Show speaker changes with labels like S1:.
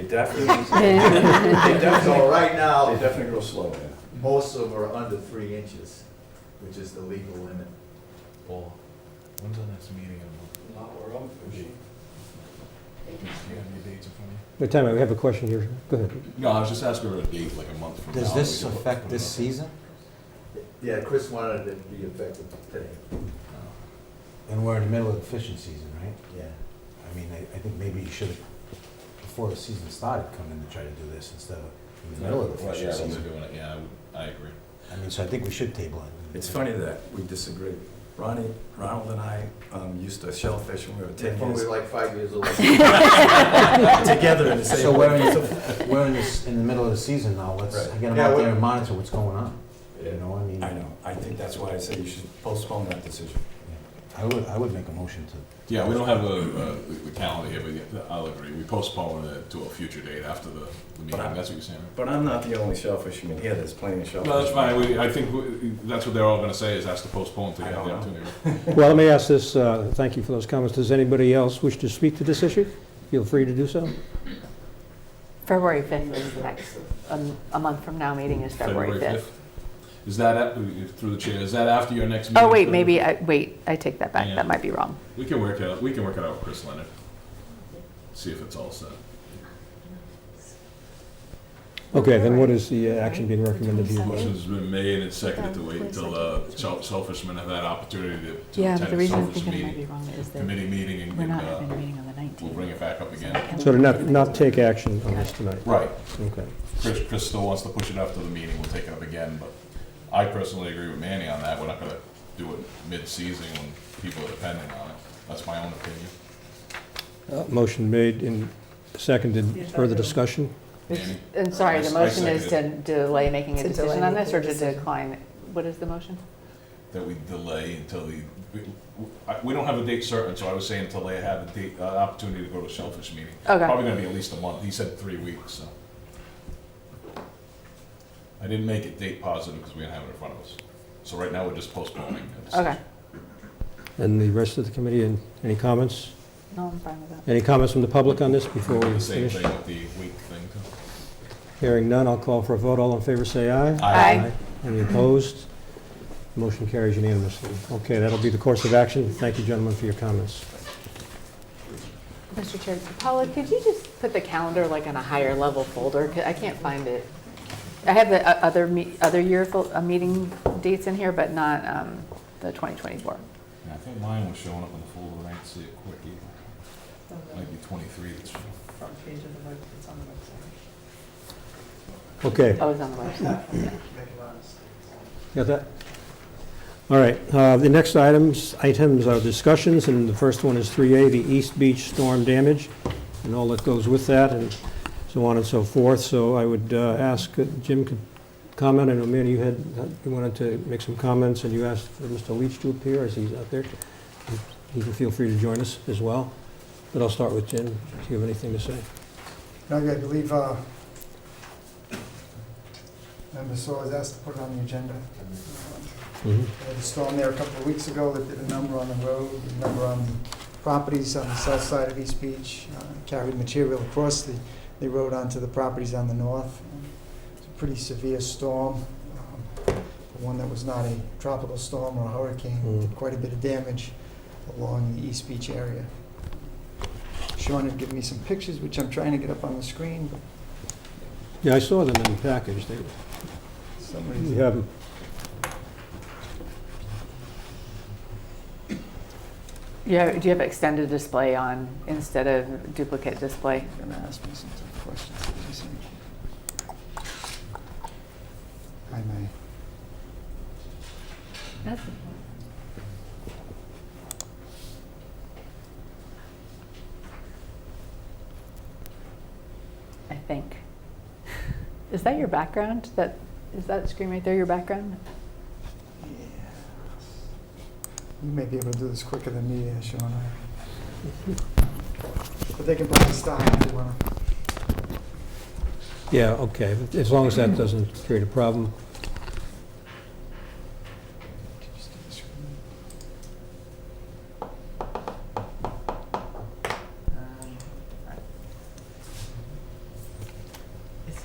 S1: definitely,
S2: They
S3: So
S2: definitely,
S3: right
S1: they
S3: now,
S1: definitely grow slow, yeah.
S3: most of them are under three inches, which is the legal limit.
S4: Well, when's our next meeting? I'm- Do you have any dates in front of you?
S5: No, time out, we have a question here. Go ahead.
S4: No, I was just asking for a date, like a month from now.
S6: Does this
S4: we can put-
S6: affect this
S4: put it
S6: season?
S3: Yeah, Chris wanted it to be effective today.
S6: And we're in the middle of the fishing season, right?
S3: Yeah,
S6: I mean, I, I think maybe you should have, before the season started, come in and try to do this instead of in the
S4: up.
S6: middle of the
S4: Right,
S6: fishing
S4: yeah, when they're
S6: season.
S4: doing it, yeah, I would- I agree.
S6: I mean, so I think we should table it.
S2: it's funny that we disagree. Ronnie, Ronald and I um, used to shellfish when we were ten
S3: when we
S2: years
S3: were like five years old.
S2: together in the
S6: So
S2: same
S6: we're in,
S2: way.
S6: the- we're in this, in the middle of the season now, let's
S2: Right.
S6: get them
S3: Yeah,
S6: out
S3: we-
S6: there and monitor what's going on. You know, I mean,
S2: I know, I think that's why I say you should postpone that decision.
S6: I would, I would make a motion to,
S4: Yeah, we don't have a, a, the calendar here, but yeah, I'll agree. We postpone it to a future date after the, the meeting.
S2: I-
S4: That's what you're saying, right?
S2: But I'm not the only shellfishing in here, there's plenty of shellfish.
S4: No, that's fine. We, I think we, that's what they're all gonna say is ask to postpone till
S2: I
S4: you have the
S2: don't know.
S4: opportunity.
S5: Well, let me ask this, uh, thank you for those comments. Does anybody else wish to speak to this issue? Feel free to do so.
S7: February 5th is the next, um, a month from now, meeting is February 5th.
S4: Is that, at- through the chair, is that after your next meeting?
S7: Oh, wait,
S4: February?
S7: maybe, I wait, I take that back,
S4: Yeah.
S7: that might be wrong.
S4: We can work out, we can work it out with Chris Leonard. See if it's all set.
S5: Okay, then what is the uh, action being recommended to you?
S4: Motion's been made and seconded to wait until uh, shell- shellfishermen have had opportunity to- to
S7: Yeah, but the
S4: attend the
S7: reason I'm
S4: shellfish
S7: thinking it might be
S4: meeting,
S7: wrong is that
S4: committee meeting, and
S7: we're
S4: and,
S7: not
S4: uh,
S7: having a meeting on the 19th.
S4: we'll bring it back up again.
S5: So to not, not take action on this tonight?
S4: Right.
S5: Okay.
S4: Chris, Chris still wants to push it after the meeting, we'll take it up again, but I personally agree with Manny on that, we're not gonna do it mid-season when people are depending on it. That's my own opinion.
S5: Uh, Motion made and seconded. Further discussion?
S7: It's-
S4: Annie?
S7: And sorry, the
S4: I- I
S7: motion is to
S4: second
S7: delay making a
S8: To delay
S7: decision on this, or
S8: making
S7: to
S8: a decision.
S7: decline? it? What is the motion?
S4: That we delay until the, we, I- we don't have a date certain, so I was saying until they have a date, uh, opportunity to go to a shellfish meeting.
S7: Okay.
S4: Probably gonna be at least a month, he said three weeks, so. I didn't make it date positive because we didn't have it in front of us. So right now, we're just postponing. it.
S7: Okay,
S5: And the rest of the committee, and any comments?
S7: no, I'm fine with that.
S5: Any comments from the public on this before
S4: Do
S5: we
S4: the same
S5: finish?
S4: thing with the week thing too.
S5: Hearing none, I'll call for a vote. All in favor, say aye.
S7: Aye.
S5: Any opposed? Motion carries unanimously. Okay, that'll be the course of action. Thank you, gentlemen, for your comments.
S7: Mr. Chair, Paula, could you just put the calendar like on a higher level folder? 'Cause I can't find it. I have the o- other, me- other year fol- uh, meeting dates in here, but not um, the 2024.
S4: Yeah, I think mine was showing up on the folder, I didn't see it quick either. Might be twenty-three that's showing.
S8: front page of the web, it's on the website.
S5: Okay,
S7: Oh, it's on the website.
S5: got that? All right, uh, the next items, items are discussions, and the first one is 3A, the East Beach storm damage, and all that goes with that, and so on and so forth. So I would uh, ask, uh, Jim could comment, I know, Manny, you had, uh, you wanted to make some comments, and you asked for Mr. Leach to appear, as he's out there. He can feel free to join us as well, but I'll start with Jim, if you have anything to say.
S9: I believe uh, Member Soares asked to put it on the agenda. There was a storm there a couple of weeks ago that did a number on the road, a number on properties on the south side of East Beach, uh, carried material across the, the road onto the properties on the north. It's a pretty severe storm, um, one that was not a tropical storm or a hurricane,
S5: Mm.
S9: did quite a bit of damage along the East Beach area. Sean had given me some pictures, which I'm trying to get up on the screen, but
S5: Yeah, I saw them in the package, they,
S9: somebody's.
S5: we have them.
S7: Yeah, do you have extended display on instead of duplicate display?
S9: You're gonna ask me some tough questions, what you think? I may.
S7: I think. Is that your background? That, is that screen right there your background?
S9: Yeah. You may be able to do this quicker than me, uh, Sean. But they can probably stop if they wanna.
S5: Yeah, okay, as long as that doesn't create a problem.